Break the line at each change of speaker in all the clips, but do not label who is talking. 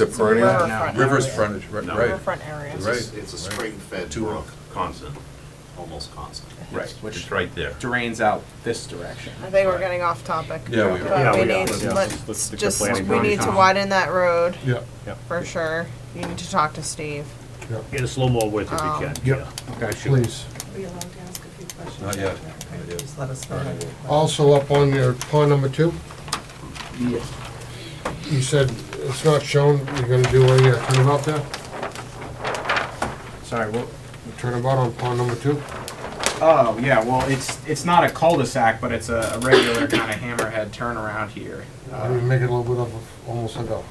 It's a perennial,
riverfront
River's
area.
frontage, ri-
No.
right.
Riverfront area.
Right.
It's it's a spring-fed
Two
brook,
constant.
almost constant.
Right,
It's
which
right there.
drains out this direction.
I think we're getting off topic.
Yeah, we are.
Yeah,
But we
we are.
need,
Yeah.
let's
Let's stick to
just,
planning
we
board.
need to widen that road
Yeah.
for sure. You need to talk to Steve.
Get a slow mo with it if you can.
Yep, please.
Are we allowed to ask a few questions?
Not yet. Not yet.
Just let us know.
Also up on your pond number two,
Yes.
you said it's not shown, you're gonna do a uh, turnabout there?
Sorry, well,
Turnabout on pond number two?
oh, yeah, well, it's, it's not a cul-de-sac, but it's a a regular kind of hammerhead turnaround here.
How do you make it a little bit of, a- almost like a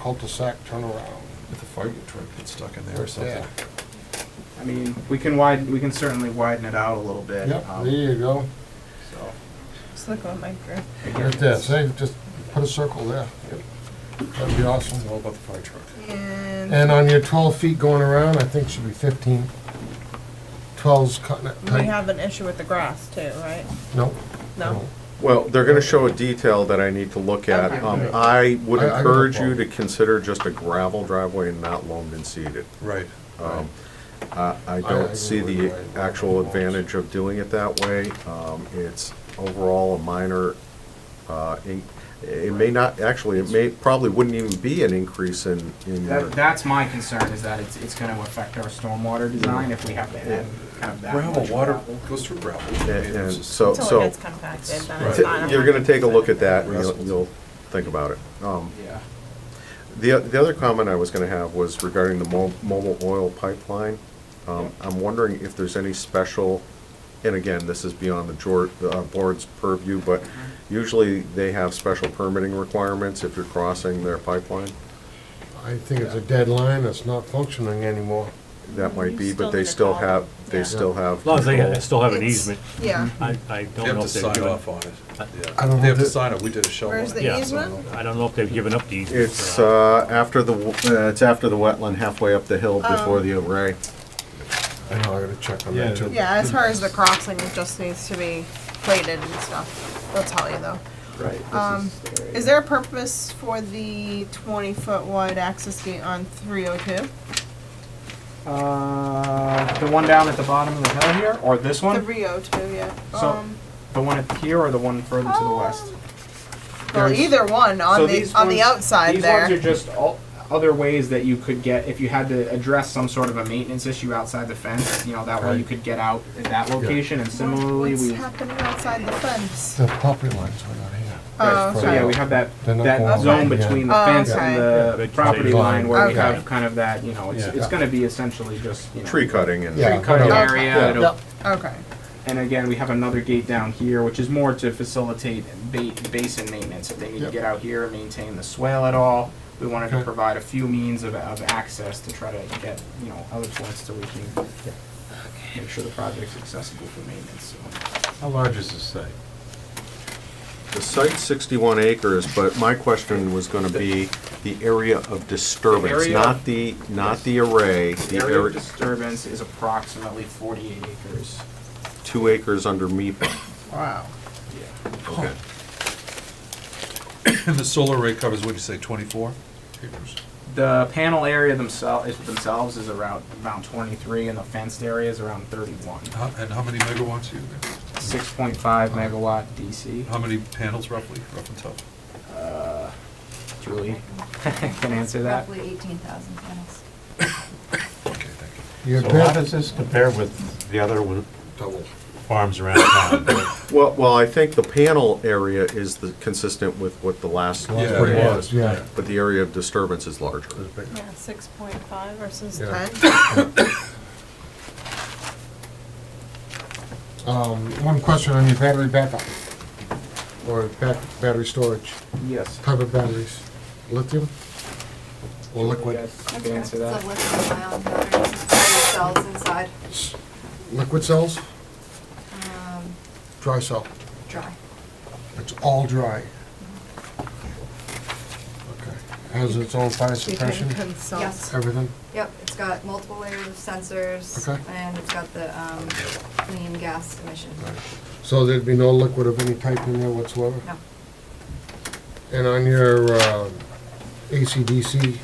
cul-de-sac turnaround?
If the fire truck gets stuck in there or
There's
something.
that.
I mean, we can widen, we can certainly widen it out a little bit.
Yep,
um,
there you go.
so,
Just look on my group.
again,
Right there,
it's-
say, just put a circle there. That'd be awesome.
It's all about the fire truck.
And
And on your twelve feet going around, I think it should be fifteen. Twelve's cutting it
we
tight.
have an issue with the grass too, right?
No,
No?
well, they're gonna show a detail that I need to look at. Um, I would
I- I got a
encourage you to
problem.
consider just a gravel driveway and not loamed and seeded.
Right.
Um, I I don't see the actual advantage of doing it that way. Um, It's overall a minor, uh, in- it may not, actually, it may, probably wouldn't even be an increase in, in your-
That, that's my concern, is that it's, it's gonna affect our stormwater design if we have to add kind of that much
Gravel, water
gravel.
goes through gravel. I mean,
and and
it's just-
so,
Until it
so,
gets compacted, then it's not. a
t- you're gonna take a look at
100%.
that, and you'll, you'll think about it. Um,
Yeah.
The, the other comment I was gonna have was regarding the mo- mobile oil pipeline. Um, I'm wondering if there's any special, and again, this is beyond the jor, uh, board's purview, but usually they have special permitting requirements if you're crossing their pipeline.
I think it's a dead line, it's not functioning anymore.
That might be,
You
but they still
still need to call
have,
them.
they
Yeah.
still have.
As long as they
control.
still have an
It's-
easement,
Yeah.
I, I
They
don't
have
know
to
if they've
sign
given.
off on it.
I don't
Yeah.
know
They have to
that-
sign it. We did a shovel.
Where's
on it.
the
Yeah.
easement?
I don't know if they've given up the easement.
It's, uh, after the, w- uh, it's after the wetland halfway up the hill before the array.
I know, I gotta check on that too.
Yeah, as far as the crossing, it just needs to be plated and stuff. They'll tell you though.
Right.
Um, is there a purpose for the twenty foot wide access gate on three oh two?
Uh, the one down at the bottom of the hill here, or this
The
one?
three oh two, yeah.
So-
Um,
The one up here or the one further to the west?
Well,
There's-
either one on
So
the
these
on the
ones-
outside
These ones are
there.
just all, other ways that you could get, if you had to address some sort of a maintenance issue outside the fence, you know, that way you could get out at that location and similarly
What's
we.
happening outside the fence?
The property lines are not here.
Oh,
So yeah,
okay.
we have that,
They're not
that
going
zone
along, yeah.
between the
Oh,
fence and
okay.
the
Vegetation.
property line where we
Okay.
have kind of that, you know, it's,
Yeah.
it's gonna be essentially just, you know.
Tree cutting and.
Yeah.
Tree cutting
Okay.
area, it'll
Yep.
Okay.
And again, we have another gate down here, which is more to facilitate ba- basin maintenance. If they need to
Yep.
get out here and maintain the swale at all, we wanted to
Okay.
provide a few means of, of access to try to get, you know, other points so we can make sure the project's accessible for maintenance, so.
How large is this site?
The site's 61 acres, but my question was going to be the area of disturbance,
area-
not the, not the array.
The area of
area-
disturbance is approximately forty-eight acres.
Two acres under MIPA.
Wow.
Okay.
And the solar array covers, what'd you say, 24 acres?
The panel area themselves, themselves is around, around twenty-three, and the fenced area is around thirty-one.
How- And how many megawatts are you,
Six point five megawatt DC.
how many panels roughly, rough and tough?
Julie can answer that.
Roughly 18,000 panels.
Okay, thank you.
Your
So how
bed,
does this compare with the other one-
double.
farms around town?
Well, well, I think the panel area is the, consistent with what the last
Yeah,
one
yeah,
was.
yeah.
But the area of disturbance is larger.
Yeah, six point five versus
Yeah.
ten.
Um, one question on your battery backup, or back, battery storage,
Yes.
type of batteries, lithium? Or liquid,
You can answer
It's a
that.
lithium ion battery, it's got cells inside,
liquid cells,
um,
dry cell,
dry.
it's all dry. Okay. Has its own fire suppression,
Yes.
everything,
Yep, it's got multiple layers of sensors,
Okay.
and it's got the um, clean gas emission.
so there'd be no liquid of any type in there whatsoever?
No,
And on your, uh, ACDC